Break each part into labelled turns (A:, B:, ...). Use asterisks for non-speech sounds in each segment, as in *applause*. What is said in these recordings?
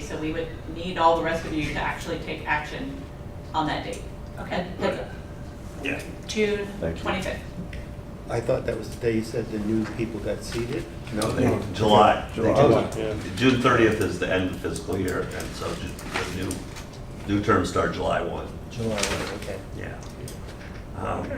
A: so we would need all the rest of you to actually take action on that date.
B: Okay.
A: That's it.
C: Yeah.
A: June
D: Thank you.
A: twenty-fifth.
E: I thought that was the day you said the new people got seated?
D: No,
C: No.
D: they, July. They
E: July.
D: do.
C: Yeah.
D: June thirtieth is the end of fiscal year, and so ju- the new, new terms start July one,
E: July, okay.
D: yeah. Um,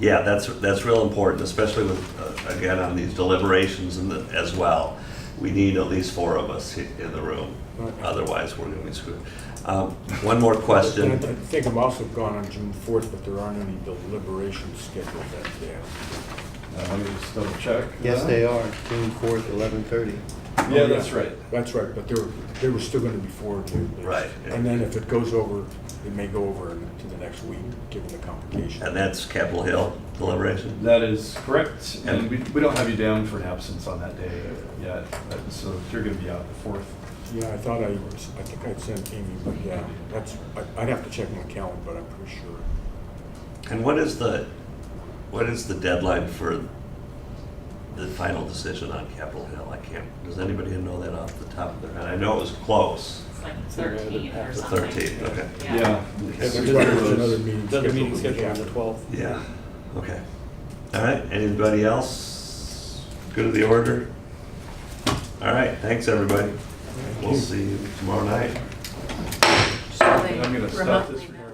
D: Yeah, that's, that's real important, especially with, uh, again, on these deliberations and the- as well. We need at least four of us i- in the room, otherwise we're gonna be screwed. Um, One more
C: *laughs*
F: And I
D: question.
F: th- I think I'm also gone on June fourth, but there aren't any deliberations scheduled that day.
G: Uh, Let me just double check. Uh,
E: Yes, they are, June fourth, eleven thirty.
G: Yeah, that's right.
F: Oh, That's right, but there, there were still gonna be four. deliberations.
D: Right.
F: And then if it goes over, it may go over to the next week, given the complication.
D: And that's Capitol Hill deliberation?
G: That is correct, and we, we don't have you down for an absence on that day yet, but- so if you're gonna be out the fourth.
F: Yeah, I thought I, was- I think I'd sent Amy, but yeah, that's, I- I'd have to check my calendar, but I'm pretty sure.
D: And what is the, what is the deadline for the final decision on Capitol Hill? I can't, does anybody know that off the top of their head? I know it was close,
A: It's like
C: So we're gonna
A: thirteen or
C: have
D: the
A: something.
D: thirteenth, okay.
A: Yeah.
F: There's
G: It's one of
F: another
G: those-
F: meeting scheduled.
C: Another
F: the
C: meeting
F: week
C: scheduled on the
F: after.
C: 12th.
D: Yeah, okay. All right, anybody else? Good to the order? All right, thanks, everybody. We'll see you tomorrow night.
B: So they
G: I'm gonna stop
B: remotely
G: this.